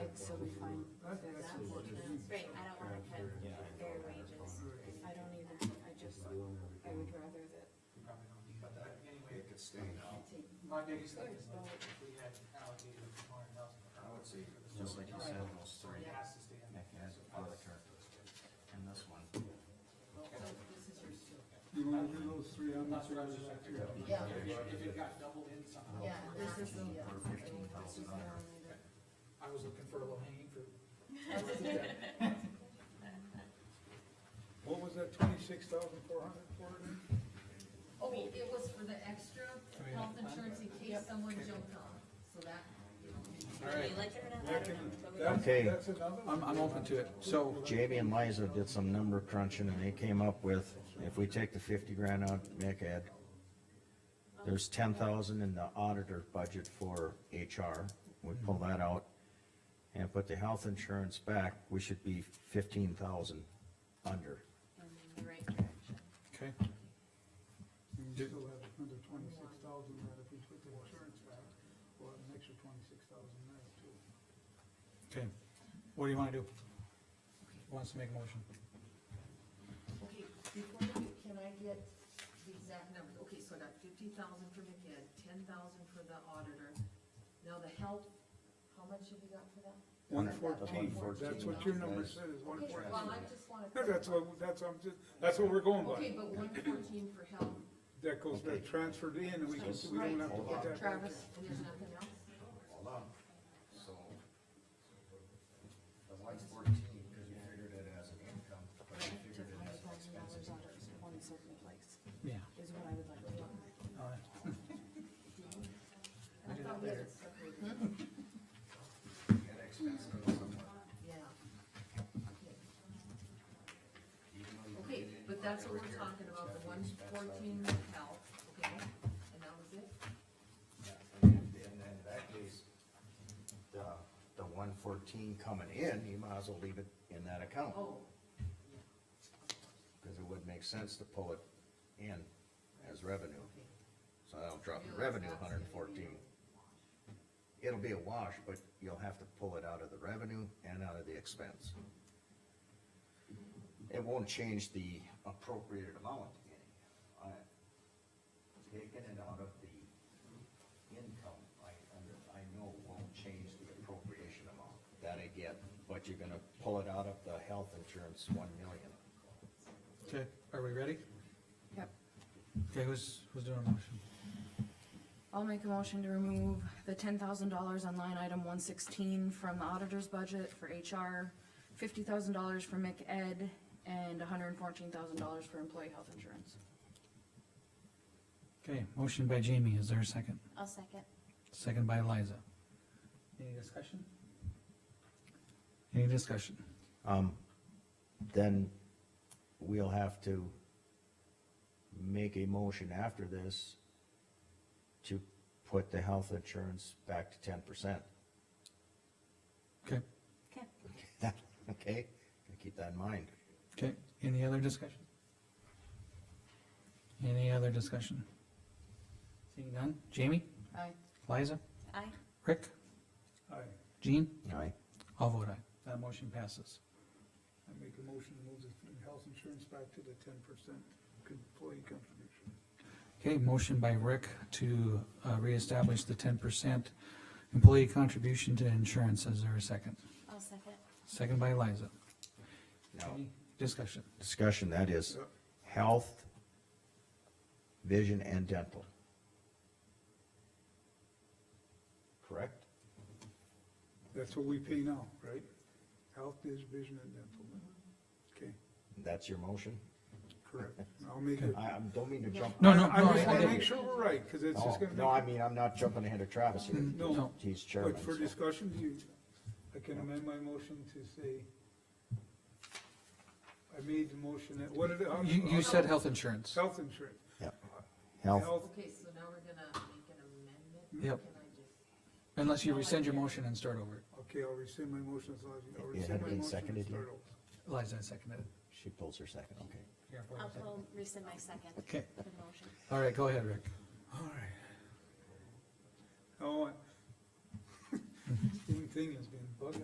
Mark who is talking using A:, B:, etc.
A: I think that's important.
B: Right, I don't wanna cut their wages.
C: I don't either, I just, I would rather that,
D: Probably don't need
E: But that,
D: that.
E: anyway,
F: It could stay now.
C: take,
E: my biggest thing is like, if we had allocated four hundred thousand per
F: I would
E: hour
F: say,
E: for the
G: just like you said, those
E: So it
G: three,
E: has to stay in
G: Nick,
E: there. So
G: here's all the
E: that's-
G: characters, and this one.
A: You wanna do those three on
E: That's what I
A: that
E: was just like,
A: right there?
E: if
C: Yeah.
E: it, if it got doubled in somehow.
C: yeah, this is the, yeah.
G: For fifteen thousand dollars.
D: I was looking for a low hanging fruit.
A: What was that, twenty-six thousand four hundred for again?
H: Oh, it was for the extra health insurance in case someone jumped on, so that, you know.
D: Alright,
B: Like it or not, I
A: That
B: don't know.
A: can- that's-
G: Okay.
A: That's another
D: I'm,
A: one.
D: I'm open to it, so,
G: Jamie and Liza did some number crunching and they came up with, if we take the fifty grand out, Nick had, there's ten thousand in the auditor budget for HR, we pull that out and put the health insurance back, we should be fifteen thousand under.
B: In the right direction.
D: okay,
A: And we still have under twenty-six thousand, that if we took the insurance back, we'll have an extra twenty-six thousand there too.
D: okay, what do you wanna do? Who Wants to make a motion?
H: Okay, before we, do- can I get the exact numbers? Okay, so I got fifty thousand for McKen, ten thousand for the auditor. Now the health, how much have you got for that?
A: One
G: One
A: fourteen,
G: fourteen.
A: that's what your
F: That
A: number
F: is-
A: said, is one
H: Okay,
A: fourteen.
H: well, I just wanna.
A: That's what, that's, I'm just, that's what we're going
H: Okay,
A: by.
H: but one fourteen for health,
A: That goes, that transferred in, and we can, we don't have to put
H: right, yeah,
A: that back in.
H: Travis, and there's nothing else?
F: Hold on, so. The one fourteen, cause you figured it as an income, but you
C: Took
F: figured it as
C: hundred
F: an
C: thousand
F: expense.
C: dollars out of one certain place,
D: Yeah,
C: is what I would like to do.
D: alright.
H: I
D: do that
H: thought we had
D: later.
H: it separated.
F: That expense goes somewhere,
H: Yeah. Okay.
F: even though you
H: Okay,
F: did it,
H: but that's what
F: every
H: we're
F: year,
H: talking
F: it's
H: about,
F: got
H: the one
F: expense out.
H: fourteen health, okay, and that was it?
F: And then in that case,
G: The, the one fourteen coming in, you might as well leave it in that account,
H: Oh,
G: cause it would make sense to pull it in as revenue.
H: okay.
G: So that'll drop your
H: Realize
G: revenue
H: that's
G: hundred and
H: gonna be-
G: fourteen. It'll be a wash, but you'll have to pull it out of the revenue and out of the expense. It won't change the appropriated amount any. I- Taking it out of the income, I, under- I know won't change the appropriation amount. That I get, but you're gonna pull it out of the health insurance one million.
D: Okay, are we ready?
C: Yep.
D: Okay, who's, who's doing a motion?
C: I'll make a motion to remove the ten thousand dollars on line item one sixteen from the auditor's budget for HR, fifty thousand dollars for McEd, and hundred and fourteen thousand dollars for employee health insurance.
D: Okay, motion by Jamie, is there a second?
B: I'll second.
D: Second by Liza. Any discussion? Any discussion?
G: Um, then we'll have to make a motion after this to put the health insurance back to ten percent.
D: Okay,
B: Okay.
G: Okay, keep that in mind.
D: okay, any other discussion? Any other discussion? Seeing none, Jamie,
C: Aye.
D: Liza,
B: Aye.
D: Rick,
A: Aye.
D: Jean,
G: Aye.
D: all vote aye, that motion passes.
A: I make a motion to move the health insurance back to the ten percent employee contribution.
D: Okay, motion by Rick to, uh, reestablish the ten percent employee contribution to insurance, is there a second?
B: I'll second.
D: Second by Liza.
G: Now,
D: Any discussion?
G: discussion, that is health, vision and dental. Correct?
A: That's what we pay now, right? Health, dis- vision, and dental. Okay,
G: That's your motion?
A: correct. I'll make it.
G: I, I don't mean to jump.
D: No, no,
A: I
D: no,
A: just wanna
D: I
A: make
D: did
A: sure we're right, cause it's
G: No,
A: just gonna
G: no, I
A: make,
G: mean, I'm not jumping ahead of Travis here.
A: No.
G: He's chairman.
A: but for
G: so-
A: discussion, you, I can amend my motion to say, I made the motion that, what did it? how-
D: You, you said health insurance.
A: Health insurance.
G: Yep. Health,
A: Health,
H: Okay, so now we're gonna make an amendment?
D: Yep.
H: Can I just,
D: Unless you rescind your motion and start over.
A: okay, I'll rescind my motion, so I'll
G: It- it had
A: rescind my
G: been
A: motion and
G: seconded yet?
A: start over.
D: Liza seconded it.
G: she pulls her second, okay.
D: Here, wait a
B: I'll
D: second.
B: pull, rescind my second.
D: Okay.
B: The motion.
D: All right, go ahead, Rick.
A: Oh, I- same thing has been bugging